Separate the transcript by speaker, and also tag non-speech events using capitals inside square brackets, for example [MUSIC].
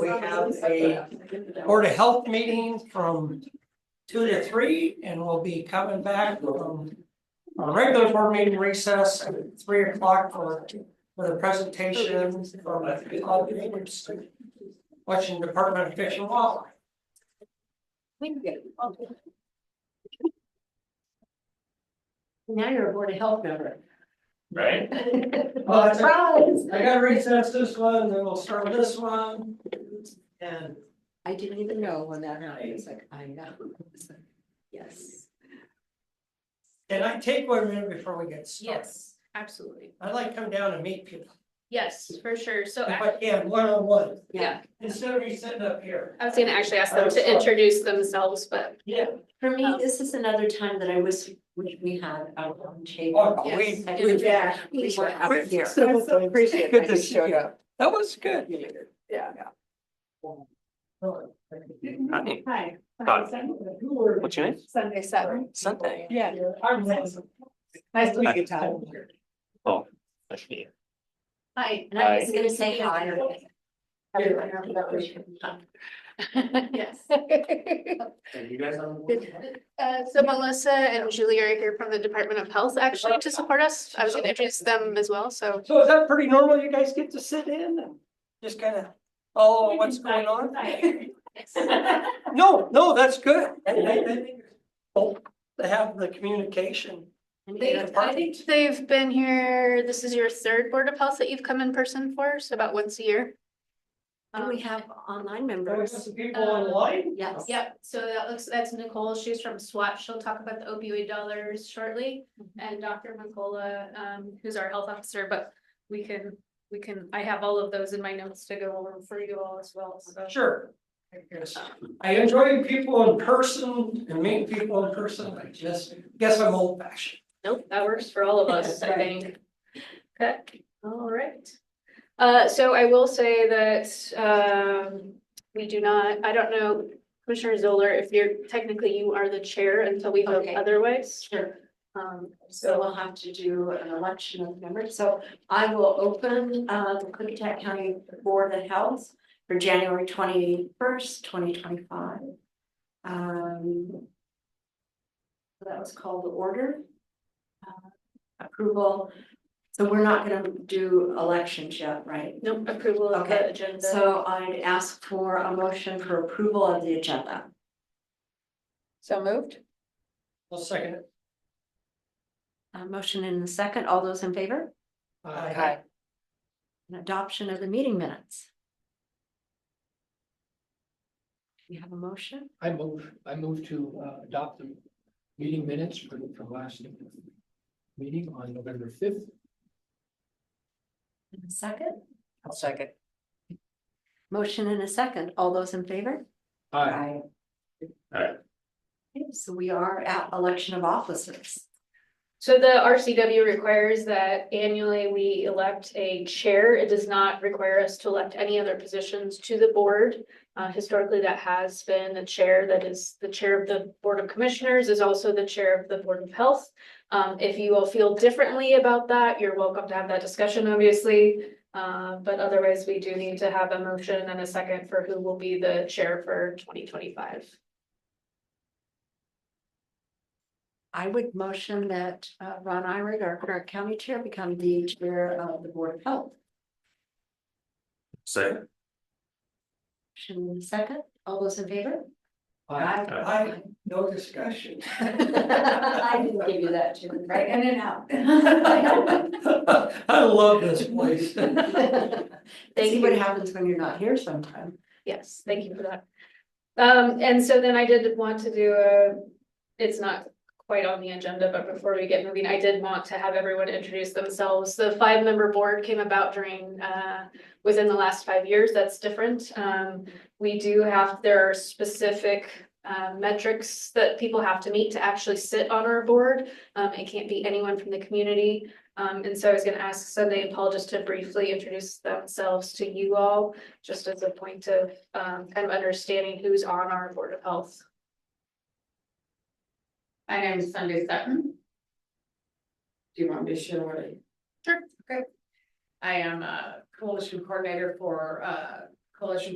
Speaker 1: we have a Board of Health meeting from two to three, and we'll be coming back from a regular board meeting recess at three o'clock for, for the presentation from all the neighbors. Washington Department of Fish and Wildlife.
Speaker 2: Now you're a board of health member.
Speaker 3: right?
Speaker 2: Well, that's right.
Speaker 1: I gotta recess this one, then we'll start with this one. And
Speaker 2: I didn't even know when that happened, it's like, I know. It's like, Yes.
Speaker 1: can I take one minute before we get started?
Speaker 4: Yes, absolutely.
Speaker 1: I'd like to come down and meet people,
Speaker 4: Yes, for sure. So
Speaker 1: if
Speaker 4: I
Speaker 1: I can, one on one,
Speaker 4: Yeah.
Speaker 1: instead of me sitting up here.
Speaker 4: I was gonna actually ask
Speaker 1: Oh,
Speaker 4: them to
Speaker 1: sorry.
Speaker 4: introduce themselves, but
Speaker 1: Yeah.
Speaker 2: For me, this is another time that I wish, wish we had our own table.
Speaker 1: Oh, we,
Speaker 2: I
Speaker 4: Yes.
Speaker 2: wish
Speaker 5: Yeah.
Speaker 2: We were out here.
Speaker 5: I'm so appreciative
Speaker 2: Good
Speaker 5: that
Speaker 2: to
Speaker 5: you
Speaker 2: see
Speaker 5: showed up.
Speaker 1: that was good.
Speaker 5: Yeah.
Speaker 3: Honey,
Speaker 5: Hi.
Speaker 3: Hi. what's your name?
Speaker 5: Sunday seven.
Speaker 3: Sunday.
Speaker 5: Yeah.
Speaker 1: I'm Lance.
Speaker 5: Nice to meet you, Todd.
Speaker 3: Nice to meet you.
Speaker 4: Hi.
Speaker 2: And I was gonna say hi.
Speaker 5: Everyone have that wish.
Speaker 4: Yes.
Speaker 3: And you guys on?
Speaker 4: Uh, so Melissa and Julie are here from the Department of Health actually to support us. I was gonna introduce them as well, so.
Speaker 1: So is that pretty normal? You guys get to sit in and just kind of, oh, what's going on? No, no, that's good. I- I- I think it's cool To have the communication.
Speaker 4: They, I think they've been here, this is your third Board of Health that you've come in person for, so about once a year.
Speaker 2: And we
Speaker 4: Um,
Speaker 2: have online
Speaker 1: There was
Speaker 2: members,
Speaker 1: some people online.
Speaker 2: yes.
Speaker 4: Yep, so that looks, that's Nicole, she's from SWAT, she'll talk about the opioid dollars shortly,
Speaker 2: Mm-hmm.
Speaker 4: and Dr. Nicola, um, who's our health officer, but we can, we can, I have all of those in my notes to go over for you all as well, so.
Speaker 1: Sure. I guess. I enjoy people in person and meeting people in person. I just guess I'm old fashioned.
Speaker 4: Nope, that works for all of us, I think. Okay, all right. Uh, so I will say that, um, we do not, I don't know, Commissioner Zoller, if you're, technically you are the chair until we vote
Speaker 2: Okay.
Speaker 4: otherwise.
Speaker 2: Sure.
Speaker 4: Um,
Speaker 2: So we'll have to do an election of members. So I will open uh the Clickatack County Board of Health for January twenty first, twenty twenty five. Um. so That was called the order. Uh, Approval. So we're not gonna do elections yet, right?
Speaker 4: no approval of the
Speaker 2: Okay,
Speaker 4: agenda.
Speaker 2: So I'd ask for a motion for approval of the agenda.
Speaker 5: So moved?
Speaker 1: I'll second it.
Speaker 2: A motion and a second. All those in favor?
Speaker 1: Uh, Aye.
Speaker 2: An adoption of the meeting minutes. We have a motion,
Speaker 6: I move, I move to uh, adopt the meeting minutes for the from last meeting on November fifth.
Speaker 2: and a second,
Speaker 5: I'll second.
Speaker 2: motion and a second, all those in favor?
Speaker 6: I
Speaker 2: Aye.
Speaker 3: Aye.
Speaker 2: Okay, So we are at election of officers.
Speaker 4: So the RCW requires that annually we elect a chair. It does not require us to elect any other positions to the board. Uh, historically, that has been the chair that is the chair of the Board of Commissioners is also the chair of the Board of Health. Um, if you all feel differently about that, you're welcome to have that discussion, obviously. Uh, but otherwise, we do need to have a motion and a second for who will be the chair for twenty twenty-five.
Speaker 2: I would motion that uh, Ron Irig, our current county chair, become the chair of the Board of Health.
Speaker 3: Say.
Speaker 2: Motion and a second, all those in favor?
Speaker 6: Aye.
Speaker 1: I, no discussion.
Speaker 2: [LAUGHS]
Speaker 1: [LAUGHS]
Speaker 2: I didn't give you that, Jim, right in and out. [LAUGHS]
Speaker 1: I love this place.
Speaker 6: [LAUGHS]
Speaker 2: See what happens when you're not here sometime.
Speaker 4: Yes, thank you for that. Um, and so then I did want to do a, it's not quite on the agenda, but before we get moving, I did want to have everyone introduce themselves. The five-member board came about during, uh, within the last five years, that's different. Um, we do have, there are specific, uh, metrics that people have to meet to actually sit on our board. Um, it can't be anyone from the community. Um, and so I was gonna ask Sunday and Paul just to briefly introduce themselves to you all, just as a point of um, kind of understanding who's on our Board of Health.
Speaker 7: My name is Sunday Sutton. Do you want me to share what I?
Speaker 4: Sure,
Speaker 7: Okay. I am a coalition coordinator for uh coalition